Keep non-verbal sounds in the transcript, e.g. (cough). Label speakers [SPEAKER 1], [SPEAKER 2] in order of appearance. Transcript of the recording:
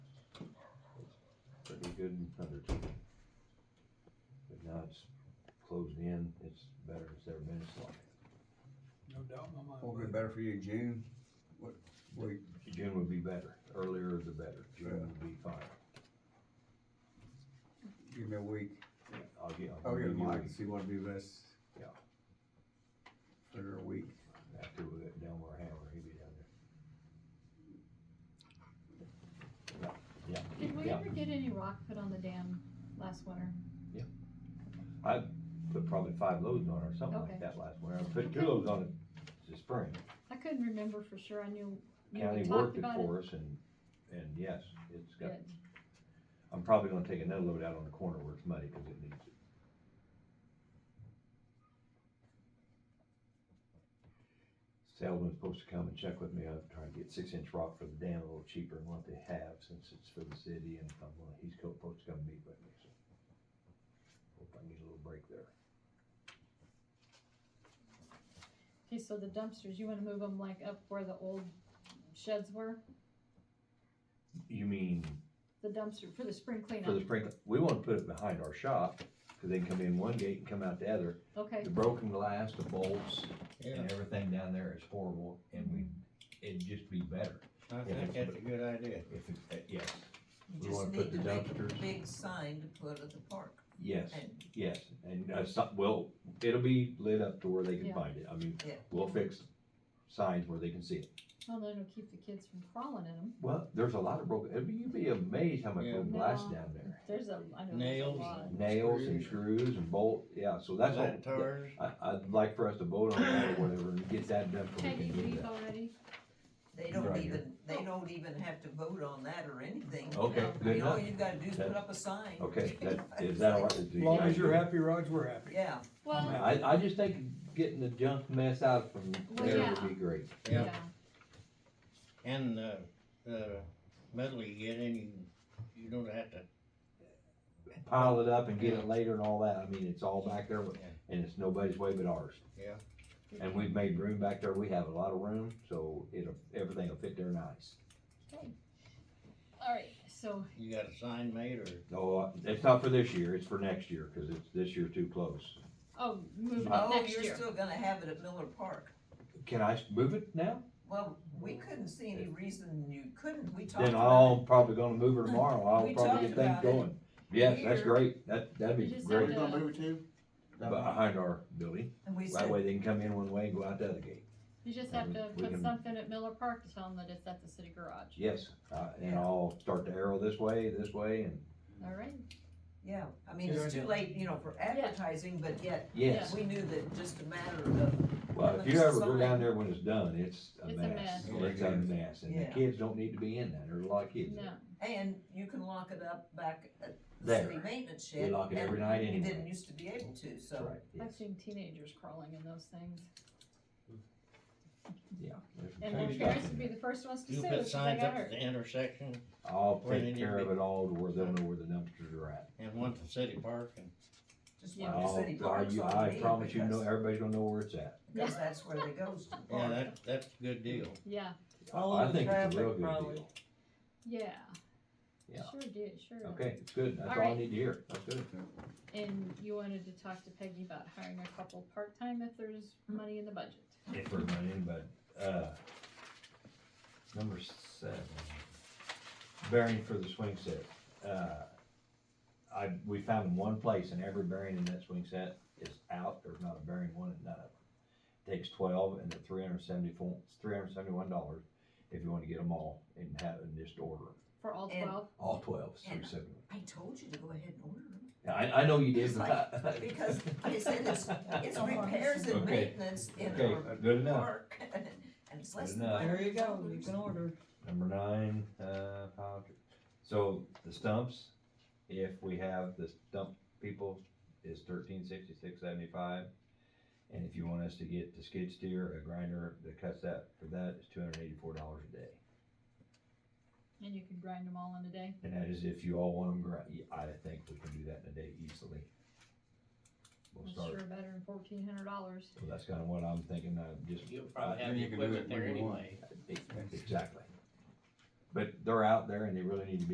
[SPEAKER 1] be good in another two. But now it's closed in, it's better, it's ever been, it's like,
[SPEAKER 2] No doubt in my
[SPEAKER 3] Will be
[SPEAKER 2] mind.
[SPEAKER 3] better for you in June? What, wait,
[SPEAKER 1] June would be better, earlier the better, June would be fine.
[SPEAKER 3] give me a week. Oh,
[SPEAKER 1] I'll get, I'll
[SPEAKER 3] I'll get
[SPEAKER 1] give you a
[SPEAKER 3] Mike and
[SPEAKER 1] week
[SPEAKER 3] see what'd be best.
[SPEAKER 1] Yeah.
[SPEAKER 3] For a week.
[SPEAKER 1] after we get down where Hammer, he'd be down there. Yeah, yeah,
[SPEAKER 4] Did we
[SPEAKER 1] yeah.
[SPEAKER 4] ever get any rock put on the dam last winter?
[SPEAKER 1] Put probably five loads on it or something
[SPEAKER 4] Okay.
[SPEAKER 1] like that last winter, I put two loads on it this spring.
[SPEAKER 4] I couldn't remember for sure, I knew you
[SPEAKER 1] County
[SPEAKER 4] had
[SPEAKER 1] worked
[SPEAKER 4] talked
[SPEAKER 1] it
[SPEAKER 4] about it.
[SPEAKER 1] for us and, and yes, it's got,
[SPEAKER 4] Good.
[SPEAKER 1] I'm probably gonna take another load out on the corner where it's muddy, cause it needs it. Salesman's supposed to come and check with me, I'm trying to get six inch rock for the dam a little cheaper than what they have, since it's for the city, and if I'm gonna, he's co- supposed to come meet with me, so. Hope I get a little break there.
[SPEAKER 4] Okay, so the dumpsters, you wanna move them like up where the old sheds were,
[SPEAKER 1] You mean,
[SPEAKER 4] the dumpster for the spring
[SPEAKER 1] for the
[SPEAKER 4] cleanup?
[SPEAKER 1] sprinkler, we wanna put it behind our shop, cause they can come in one gate and come out the other,
[SPEAKER 4] Okay,
[SPEAKER 1] the broken glass, the bolts, and everything down there is horrible, and we, it'd just be better
[SPEAKER 3] I
[SPEAKER 1] think that's a
[SPEAKER 3] good idea.
[SPEAKER 1] if it's, uh, yes, We
[SPEAKER 5] You just
[SPEAKER 1] wanna put
[SPEAKER 5] need to
[SPEAKER 1] the
[SPEAKER 5] make
[SPEAKER 1] dumpsters-
[SPEAKER 5] a big sign to put at the park.
[SPEAKER 1] yes,
[SPEAKER 5] And
[SPEAKER 1] yes, and, uh, so, well, it'll be lit up to where they can
[SPEAKER 4] Yeah.
[SPEAKER 1] find it, I mean,
[SPEAKER 5] Yeah.
[SPEAKER 1] we'll fix signs where they can see it.
[SPEAKER 4] well, then it'll keep the kids from crawling in them,
[SPEAKER 1] Well, there's a lot of broken, it'd be- you'd be amazed how much
[SPEAKER 3] Yeah.
[SPEAKER 1] broken glass
[SPEAKER 4] No.
[SPEAKER 1] down there,
[SPEAKER 4] there's a, I know there's a
[SPEAKER 6] Nails
[SPEAKER 4] lot.
[SPEAKER 1] nails and screws and bolt, yeah, so that's all. yeah.
[SPEAKER 3] Lanterns.
[SPEAKER 1] I, I'd like for us to vote on that or whatever, and get that done so we
[SPEAKER 4] Peggy,
[SPEAKER 1] can do
[SPEAKER 4] leave
[SPEAKER 1] that.
[SPEAKER 4] already?
[SPEAKER 5] They don't
[SPEAKER 1] Right here.
[SPEAKER 5] even, they don't even have to vote on that or anything.
[SPEAKER 1] Okay,
[SPEAKER 4] No.
[SPEAKER 1] good
[SPEAKER 5] All
[SPEAKER 1] enough,
[SPEAKER 5] you gotta do is
[SPEAKER 1] That-
[SPEAKER 5] put up a sign.
[SPEAKER 1] okay, that, is that all right? Do
[SPEAKER 2] As
[SPEAKER 1] you
[SPEAKER 2] long
[SPEAKER 1] guys
[SPEAKER 2] as you're
[SPEAKER 1] do?
[SPEAKER 2] happy, Raj, we're happy.
[SPEAKER 5] Yeah,
[SPEAKER 2] I'm
[SPEAKER 4] Well,
[SPEAKER 2] out.
[SPEAKER 1] I, I just think getting the junk mess out from
[SPEAKER 4] Well,
[SPEAKER 1] there
[SPEAKER 4] yeah.
[SPEAKER 1] would be great.
[SPEAKER 6] Yeah.
[SPEAKER 4] yeah,
[SPEAKER 6] And the, the metal you get in, you, you don't have to,
[SPEAKER 1] Pile it up and get it later and all that, I mean, it's all back there,
[SPEAKER 6] Yeah.
[SPEAKER 1] and it's nobody's way but ours.
[SPEAKER 6] Yeah.
[SPEAKER 1] And we've made room back there, we have a lot of room, so it'll, everything will fit there nice.
[SPEAKER 4] alright, so,
[SPEAKER 6] you got a sign made or?
[SPEAKER 1] No, Oh, it's not for this year, it's for next year, cause it's this year too close.
[SPEAKER 4] oh, moving up
[SPEAKER 5] oh,
[SPEAKER 4] next
[SPEAKER 5] you're
[SPEAKER 4] year,
[SPEAKER 5] still gonna have it at Miller Park.
[SPEAKER 1] Can I s- move it now?
[SPEAKER 5] Well, we couldn't see any reason you couldn't, we talked
[SPEAKER 1] Then
[SPEAKER 5] about
[SPEAKER 1] I'll probably gonna move it tomorrow, I'll
[SPEAKER 5] We
[SPEAKER 1] probably
[SPEAKER 5] talked
[SPEAKER 1] get things
[SPEAKER 5] about it.
[SPEAKER 1] going. Yes, that's
[SPEAKER 5] Here.
[SPEAKER 1] great, that, that'd
[SPEAKER 4] You
[SPEAKER 1] be
[SPEAKER 4] just
[SPEAKER 1] great,
[SPEAKER 4] have to-
[SPEAKER 3] gonna move it to?
[SPEAKER 1] behind our building,
[SPEAKER 5] it, and we
[SPEAKER 1] that
[SPEAKER 5] said,
[SPEAKER 1] way they can come in one way and go out the other gate.
[SPEAKER 4] you just
[SPEAKER 1] Yeah,
[SPEAKER 4] have
[SPEAKER 1] we-
[SPEAKER 4] to
[SPEAKER 1] we
[SPEAKER 4] put
[SPEAKER 1] can-
[SPEAKER 4] something at Miller Park to tell them that it's at the city garage,
[SPEAKER 1] Yes, uh, and
[SPEAKER 5] Yeah.
[SPEAKER 1] I'll start the arrow this way, this way, and,
[SPEAKER 4] alright?
[SPEAKER 5] yeah, I mean,
[SPEAKER 3] You're
[SPEAKER 5] it's too
[SPEAKER 3] gonna-
[SPEAKER 5] late, you know, for advertising, but yet,
[SPEAKER 1] yes.
[SPEAKER 5] we knew that just a matter of,
[SPEAKER 1] Well, if you ever go down there when it's done, it's a
[SPEAKER 4] It's a
[SPEAKER 1] mess.
[SPEAKER 4] mess.
[SPEAKER 1] It's a mess, and the
[SPEAKER 5] Yeah.
[SPEAKER 1] kids don't need to be in that, there's a lot of kids
[SPEAKER 4] No,
[SPEAKER 1] there.
[SPEAKER 5] and you can lock it up back at the
[SPEAKER 1] There.
[SPEAKER 5] city maintenance
[SPEAKER 1] We
[SPEAKER 5] shed.
[SPEAKER 1] lock it every
[SPEAKER 5] and
[SPEAKER 1] night
[SPEAKER 5] You
[SPEAKER 1] anyway.
[SPEAKER 5] didn't used to be able to, so.
[SPEAKER 1] That's right, yes,
[SPEAKER 4] I've seen teenagers crawling in those things,
[SPEAKER 1] yeah. there's some
[SPEAKER 4] and
[SPEAKER 1] good
[SPEAKER 4] their
[SPEAKER 1] stuff
[SPEAKER 4] parents
[SPEAKER 1] in
[SPEAKER 4] would be
[SPEAKER 1] there.
[SPEAKER 4] the first ones to
[SPEAKER 6] You
[SPEAKER 4] sue if
[SPEAKER 6] put
[SPEAKER 4] they
[SPEAKER 6] signs
[SPEAKER 4] got
[SPEAKER 6] up at
[SPEAKER 4] hurt.
[SPEAKER 6] the intersection
[SPEAKER 1] I'll
[SPEAKER 6] where they
[SPEAKER 1] take
[SPEAKER 6] need to
[SPEAKER 1] care of
[SPEAKER 6] be.
[SPEAKER 1] it all to where they'll know where the dumpsters are at.
[SPEAKER 6] and one to city park and,
[SPEAKER 5] Just
[SPEAKER 4] Yeah.
[SPEAKER 5] like the
[SPEAKER 1] I'll-
[SPEAKER 5] city
[SPEAKER 1] I'll-
[SPEAKER 5] parks
[SPEAKER 1] you-
[SPEAKER 5] ought to
[SPEAKER 1] I
[SPEAKER 5] be,
[SPEAKER 1] promise you,
[SPEAKER 5] because-
[SPEAKER 1] know, everybody's gonna know where it's at.
[SPEAKER 5] Because that's where they goes to the
[SPEAKER 6] yeah,
[SPEAKER 5] park.
[SPEAKER 6] that, that's a good deal.
[SPEAKER 4] Yeah,
[SPEAKER 3] Follow
[SPEAKER 1] I
[SPEAKER 3] the
[SPEAKER 1] think it's
[SPEAKER 3] traffic,
[SPEAKER 1] a real good
[SPEAKER 3] probably.
[SPEAKER 1] deal.
[SPEAKER 4] yeah.
[SPEAKER 1] Yeah.
[SPEAKER 4] Sure did, sure. did.
[SPEAKER 1] Okay, it's good, that's
[SPEAKER 4] All
[SPEAKER 1] all I
[SPEAKER 4] right.
[SPEAKER 1] need to hear, that's good.
[SPEAKER 4] And you wanted to talk to Peggy about hiring a couple part-time if there's money in the budget.
[SPEAKER 1] If we're running, but, uh, number seven, bearing for the swing set. Uh, I, we found one place and every bearing in that swing set is out, there's not a bearing one at none of them. Takes twelve and they're three hundred seventy-four, three hundred seventy-one dollars if you wanna get them all and have, and just order them.
[SPEAKER 4] For all
[SPEAKER 5] And-
[SPEAKER 4] twelve,
[SPEAKER 1] All twelves, three
[SPEAKER 5] And-
[SPEAKER 1] seventy.
[SPEAKER 5] I told you to go ahead and order them,
[SPEAKER 1] I, I know you did,
[SPEAKER 5] It's
[SPEAKER 1] but I.
[SPEAKER 5] because I said it's, it's repairs and
[SPEAKER 1] Okay.
[SPEAKER 5] maintenance in
[SPEAKER 1] Okay,
[SPEAKER 5] our
[SPEAKER 1] good enough.
[SPEAKER 5] park, (laughs) and it's less
[SPEAKER 1] Good
[SPEAKER 5] than.
[SPEAKER 1] enough.
[SPEAKER 3] There you go, you can order.
[SPEAKER 1] Number nine, uh, pile dri- so the stumps, if we have the stump people, is thirteen sixty-six seventy-five. And if you want us to get the skid steer, a grinder that cuts that, for that is two hundred eighty-four dollars a day.
[SPEAKER 4] and you can grind them all in a day.
[SPEAKER 1] And that is if you all want them, gri- I think we can do that in a day easily. We'll
[SPEAKER 4] That's
[SPEAKER 1] start,
[SPEAKER 4] sure better than fourteen hundred dollars.
[SPEAKER 1] so that's kinda what I'm thinking, I just
[SPEAKER 7] You'll probably have
[SPEAKER 3] Then
[SPEAKER 7] the
[SPEAKER 3] you can do
[SPEAKER 7] equipment
[SPEAKER 3] it when
[SPEAKER 7] there
[SPEAKER 3] you want.
[SPEAKER 7] anyway.
[SPEAKER 1] Exactly. But they're out there and they really need to be